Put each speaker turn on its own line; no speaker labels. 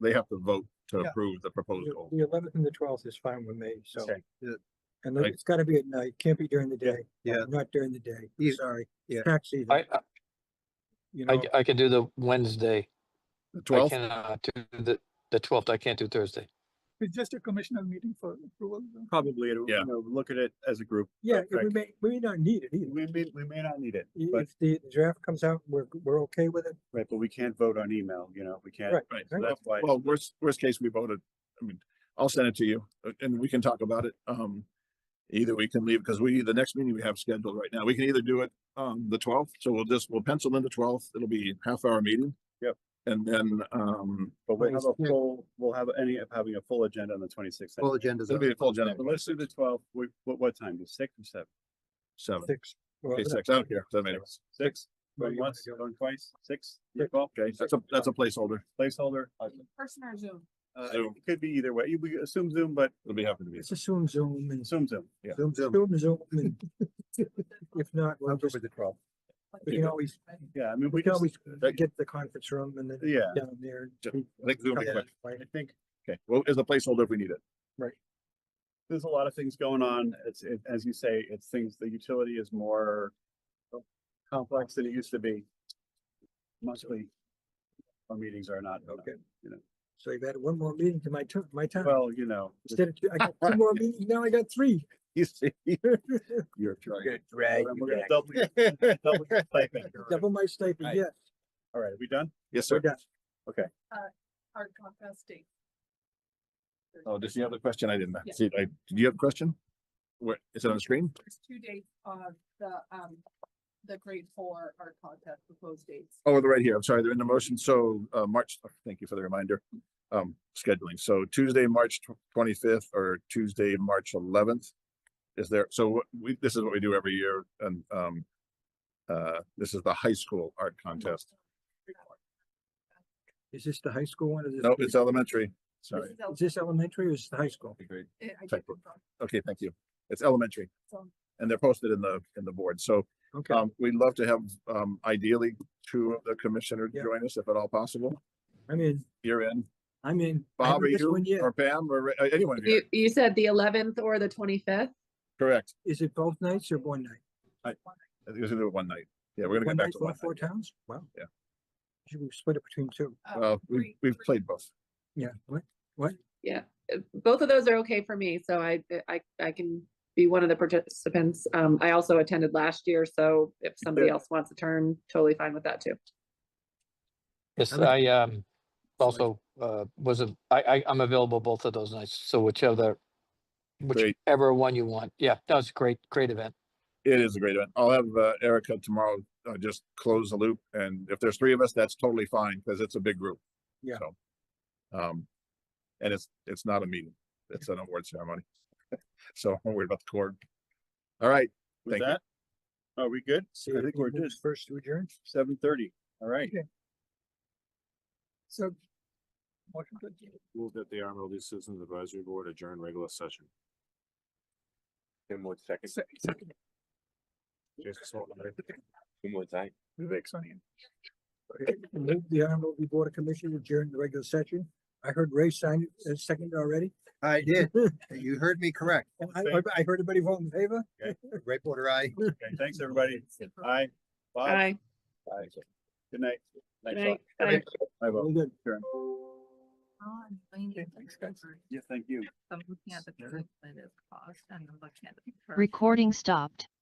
they have to vote to
Yeah.
approve the proposed goal.
The eleventh and the twelfth is fine with me, so.
Okay.
Yeah.
And look,
Right.
it's gotta be at night, can't be during the day.
Yeah.
Not during the day,
Yeah.
sorry.
Yeah.
Tax season,
I, I-
you know,
I, I can do the Wednesday.
The
I
twelfth,
cannot do the, the twelfth. I can't do Thursday.
It's just a commissioner meeting for approval. though.
Probably, it'll-
Yeah.
you know, look at it as a group.
yeah, and we
Frank.
may, we may not need it either.
We may, we may not need it,
I-
but,
If the draft comes out, we're, we're okay with it,
right, but we can't vote on email, you know, we can't.
Right.
right,
So that's why,
well, worst, worst case, we voted, I mean, I'll send it to you, uh, and we can talk about it, um. Either we can leave, because we, the next meeting we have scheduled right now, we can either do it, um, the twelfth, so we'll just, we'll pencil in the twelfth, it'll be half hour meeting.
Yep.
And then, um,
but we'll have a
Yeah.
full, we'll have any of having a full agenda on the twenty-sixth.
Full agendas.
it'll be a full agenda,
Let's do the twelfth, what, what time, The six or seven?
seven,
six. well,
okay,
no,
six, I don't care, doesn't matter.
Six,
Well,
going
you-
once, going twice, six,
Six.
twelve,
Okay, that's a, that's a placeholder,
placeholder. Uh,
Person or Zoom?
it
Zoom.
could be either way, You- we assume Zoom, but
it'll be happy to be.
Let's assume Zoom and.
assume Zoom.
Yeah.
Zoom, Zoom.
Zoom, Zoom, and if not, we'll
I'll go
just,
with the twelve.
we can always,
Yeah, I mean,
we
we
can
just,
always get the conference room and then
yeah,
down there.
Ju-
we-
I think Zoom will be
Yeah.
quick,
I think
okay, well, is the placeholder if we need it,
there's a lot of things going on. It's, it, as you say, it's things, the utility is more complex than it used to be. Mostly, our meetings are not,
Okay.
you know.
So you've had one more meeting to my turn, my time.
well, you know,
Instead of, two- I got two more meetings, now I got three.
you see, you're trying.
drag.
We're gonna double your- double your stipend.
Double my stipend,
Right.
yeah,
All right, are we done?
yes,
we're
sir,
done.
Hard Comcast date.
oh, does she have a question, I didn't,
Yeah.
see, I, do you have a question? Where, is it on the screen?
There's two dates of the, um, the grade four art contest proposed dates.
Oh, they're right here. I'm sorry, they're in the motion. So, uh, March, thank you for the reminder. Um, scheduling. So Tuesday, March twenty-fifth or Tuesday, March eleventh. Is there, so what we, this is what we do every year and, um, uh, this is the high school art contest.
Is this the high school one or this?
No, it's elementary. Sorry.
This is el-
Is this elementary or is it the high school?
eh,
check
I did
book.
it wrong,
Okay, thank you. It's elementary
so
and they're posted in the, in the board. So,
Okay,
um, we'd love to have, um, ideally two of the commissioners
Yeah.
join us if at all possible.
I'm in,
You're in.
I'm in. I
Bob,
haven't
are
missed one
you
yet.
or Pam or uh, anyone
You,
here?
you said the eleventh or the twenty-fifth?
Correct.
Is it both nights or one night?
I think we're gonna do it one night. Yeah, we're gonna
One
get back
night,
to
all
one
four
night.
towns? Wow.
Yeah.
Should we split it between two?
uh,
Well, we've,
three-
we've
three-
played both.
Yeah, what?
Both of those are okay for me, so I, I, I can be one of the participants. Um, I also attended last year, so if somebody
Yeah.
else wants a turn, totally fine with that too.
Yes,
Okay.
I, um, also, uh, was a, I, I, I'm available both of those nights. So whichever,
Great.
whichever one you want. Yeah, that was a great, great event.
It is a great event. I'll have uh, Erica tomorrow, uh, just close the loop. And if there's three of us, that's totally fine because it's a big group.
Yeah.
So, Um, and it's, it's not a meeting. It's an award ceremony. So I'm worried about the cord. All right.
With
Thank you.
that? Are we good?
See
I
if
think we're
anyone
good.
First to adjourn?
Seven thirty, all right.
So. motion to adjourn.
Move that the RMLD Citizens Advisory Board adjourn regular session. Tim Woods, second.
Se- second,
Jason Saltzman, aye.
Vivek Sonia.
Move The Honorable Board of Commissioners adjourned the regular session. I heard Ray sign it, uh, second already.
I did. You heard me correct.
Oh,
And I, I heard everybody vote in favor.
Ray Porter, I.
Okay, thanks, everybody.
super.
Bye. Bye.
Bye.
Bye. Good night.
Good
Thanks,
night.
all.
Bye.
Bye, Bob.
Very good.
On, I need
Okay,
to
thanks, guys.
remember.
Yeah, thank you.
So I'm looking at the curve that is caused and I'm looking at the. curve.
Recording stopped.